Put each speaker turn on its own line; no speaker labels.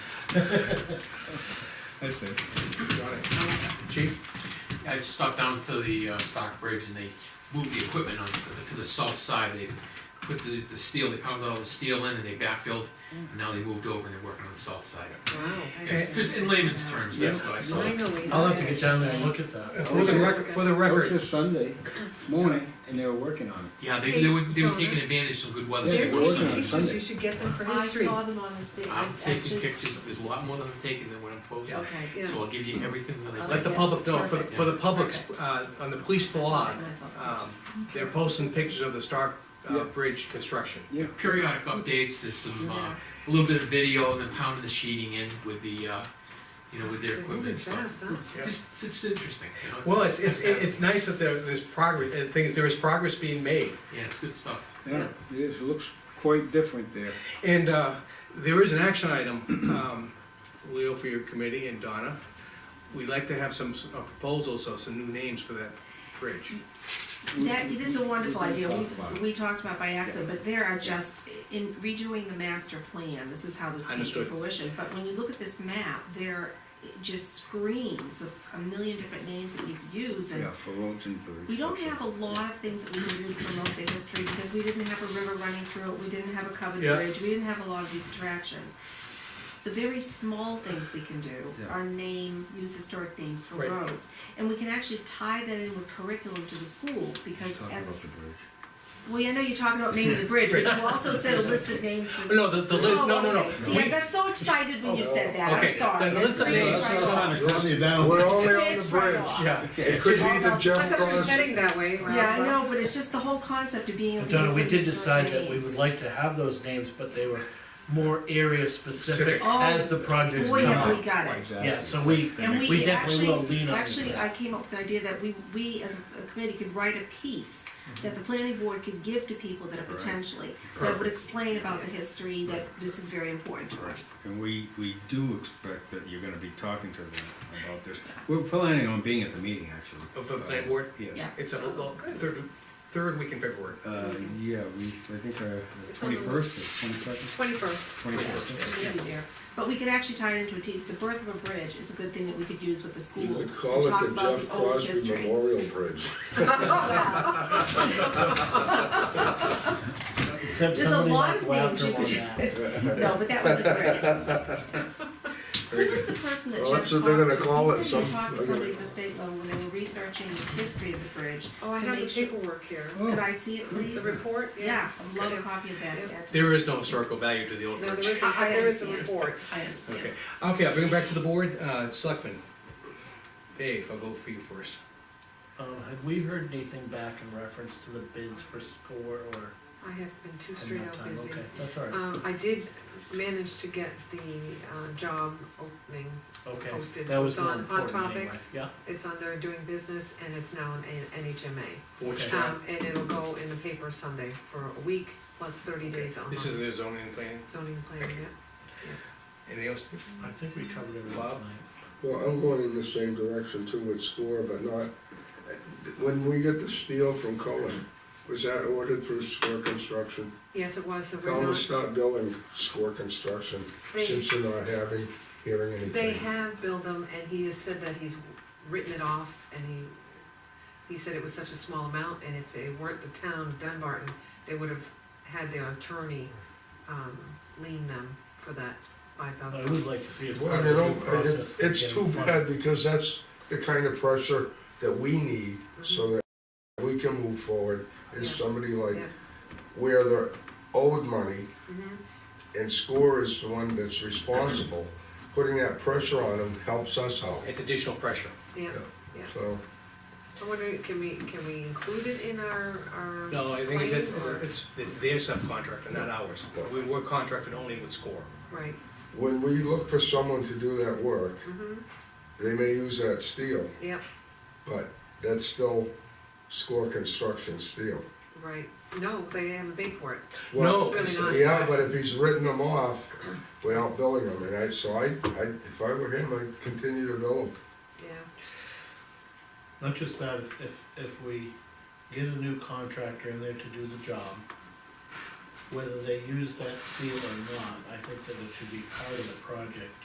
I see.
Chief?
I just stopped down to the uh, Stockbridge and they moved the equipment on, to- to the south side, they put the, the steel, they pounded all the steel in and they backfilled,
Mm.
and now they moved over and they're working on the south side. Yeah, Just in layman's terms, that's what I saw.
I'll have to get down there and look at that.
For the record, for the
It was
record,
just Sunday morning, and they were working on it.
Yeah, they, they were, they were taking advantage of some good weather, so
Yeah,
they
They're
were
we're working
taking
on
Sunday.
it
pictures,
Sunday.
you should get them for
I
history.
saw them on the state.
I'm taking
Action.
pictures, there's a lot more that I'm taking than what I'm posting,
Okay, yeah.
so I'll give you everything that I.
I'll
got.
let the
Yes,
public know, for, the-
perfect.
for the public's,
Perfect.
uh, on the police blog,
Myself.
um, they're posting pictures of the Stark, uh,
Yeah.
Bridge construction.
Yeah,
periodic updates, there's some, uh,
Yeah.
a little bit of video, and then pounding the sheeting in with the, uh, you know, with their
They're
equipment
moving
and stuff.
fast, huh?
Yeah.
Just, it's interesting, you know?
Well, it's, it's, it's nice that there, there's progress, and things, there is progress being made.
Yeah, it's good stuff.
yeah, it is, it looks quite different there.
And uh, there is an action item, um, Leo, for your committee and Donna. We'd like to have some s- uh, proposals, so some new names for that bridge.
That, it is a wonderful
We can
idea,
talk about
we,
it.
we talked about by accident, but there are just, in redoing the master plan, this is how this came to
Understood.
fruition. But when you look at this map, there just screams of a million different names that you could use, and
Yeah, for roads and bridges.
we don't have a lot of things that we can do to promote the history, because we didn't have a river running through it, we didn't have a covered
Yeah.
bridge, we didn't have a lot of these attractions. The very small things we can do
Yeah.
are name, use historic names for
Right.
roads. And we can actually tie that in with curriculum to the school, because
Talk about
as,
the bridge.
well, yeah, I know you're talking about naming the bridge, but you also said a list of names for.
No, the, the, li-
Oh,
no, no, no.
okay. See, I
We-
got so excited when you said that, I'm
Okay,
sorry.
the list of
That's
names.
right off.
We're only on the
It's right
bridge.
off.
Yeah,
It could be the Jeff
I thought you were
Cross.
heading that way, Rob.
Yeah, I know, but it's just the whole concept of being able to.
Donna,
use
we
some
did
historic
decide that we
names.
would like to have those names, but they were more area specific
Specific.
as the projects
Oh, Boy,
come
have we
up.
got it.
Exactly.
Yeah, so we,
And
we
we
definitely will
actually,
lean on
actually, I
that.
came up with an idea that we, we as a committee could write a piece that the planning board could give to people that are
Right.
potentially, that would
Perfect.
explain about the history, that this is very important to us.
And we, we do expect that you're gonna be talking to them about this. We're planning on being at the meeting, actually. Uh,
Of the planning board?
Yes.
Yeah.
it's a, little- third, third week in February.
Uh, yeah, we, I think, uh,
It's on the-
twenty-first or twenty-second,
Twenty-first.
twenty-fourth.
Yeah, there. But we could actually tie it into a, te- the birth of a bridge is a good thing that we could use with the school.
You could
and
call
talk
it the
about
Jeff
old
Crosby
history.
Memorial Bridge.
Except
There's a
somebody
lot
might
of
go
names
after
you
one
could,
now.
no, but that would be great. Who was the person that Jeff
Well,
talked
that's
to?
what they're gonna
He
call it,
said he
some-
talked to
they're gonna-
somebody at the state level when they were researching the history of the bridge.
Oh, I
to
have the
make sure-
paperwork here.
Oh. Could I see it, please?
The report,
Yeah,
yeah.
I'd love a copy of that.
Yeah.
at-
There is no historical value to the old
No,
bridge.
there is, a-
I- I
there is a
understand.
report.
I understand.
Okay, okay, I'll bring it back to the board, uh, selectmen. Dave, I'll go for you first.
Um, have we heard anything back in reference to the bids for score or?
I have been too straight
enough
out
time?
busy.
Okay, that's all right,
Um, I did manage to get the, uh, job opening.
okay.
posted,
That
so
was
it's
more
on- on
important anyway.
topics.
Yeah,
It's under doing business and it's now in A- NHMA.
Forge
Okay.
job.
Um, and it'll go in the paper Sunday for a week plus thirty days on
This is the zoning and planning,
zoning plan, yeah.
anything else?
I think we covered everything
Bob?
tonight.
Well, I'm going in the same direction too with SCORE, but not, when we get the steel from Cohen, was that ordered through SCORE Construction?
Yes, it was, so we're
Tell them to
not,
stop building SCORE Construction
they,
since they're not having, hearing anything.
they have billed them and he has said that he's written it off and he, he said it was such a small amount and if they weren't the town of Dunbarton, they would have had their attorney, um, lien them for that five thousand
I
dollars.
would like to see it part
Well,
of
you
the
know,
due
it-
process.
it's
again.
too bad because that's the kind of pressure that we need so that we can move forward. Is
Mm-hmm. Yeah.
somebody like
Yeah.
where they're owed money
Mhm.
and SCORE is the one that's responsible, putting that pressure on them helps us out.
It's additional pressure.
Yeah, yeah.
So,
I wonder, can we, can we include it in our, our?
No, I think it's, it's,
plan, or-
it's- it's their subcontractor, not ours. We were contracted only with SCORE.
Right,
when we look for someone to do that work,
mm-hmm,
they may use that steel,
yep,
but that's still SCORE construction steel.
right. No, they haven't paid for it.
Well,
No,
It's really
Yeah, but if he's written them off without billing them, and I, so I, I, if I were him, I'd continue to bill them.
Yeah,
Not just that, if, if, if we get a new contractor in there to do the job, whether they use that steel or not, I think that it should be part of the project